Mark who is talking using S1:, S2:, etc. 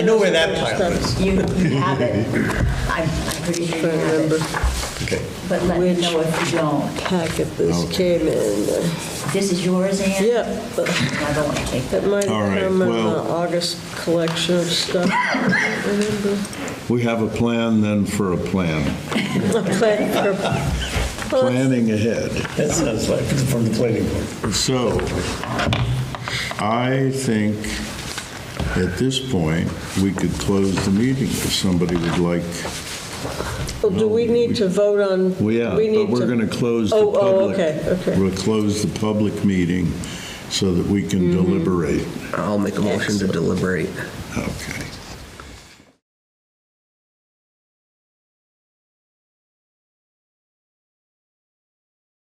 S1: I know where that pile is.
S2: You you have it. I'm I'm pretty sure you
S3: Can't
S2: have
S3: remember
S2: it,
S1: Okay.
S2: but let me
S3: which-
S2: know if you don't.
S3: packet this came in.
S2: This is yours, Ann?
S3: Yep, but
S2: I don't want to take that.
S3: it might
S4: All
S3: have
S4: right,
S3: come in the
S4: well-
S3: August collection of stuff. Remember?
S4: We have a plan then for a plan,
S3: Plan for-
S4: planning ahead.
S1: That sounds like it's from the planning board.
S4: So, I think at this point, we could close the meeting if somebody would like.
S3: Well, do we need to vote on?
S4: Well, yeah,
S3: we
S4: but
S3: need
S4: we're going to close the
S3: Oh,
S4: public.
S3: oh, okay, okay.
S4: We'll close the public meeting
S3: Mm-hmm.
S4: so that we can deliberate.
S5: I'll make a motion to deliberate.
S4: Okay.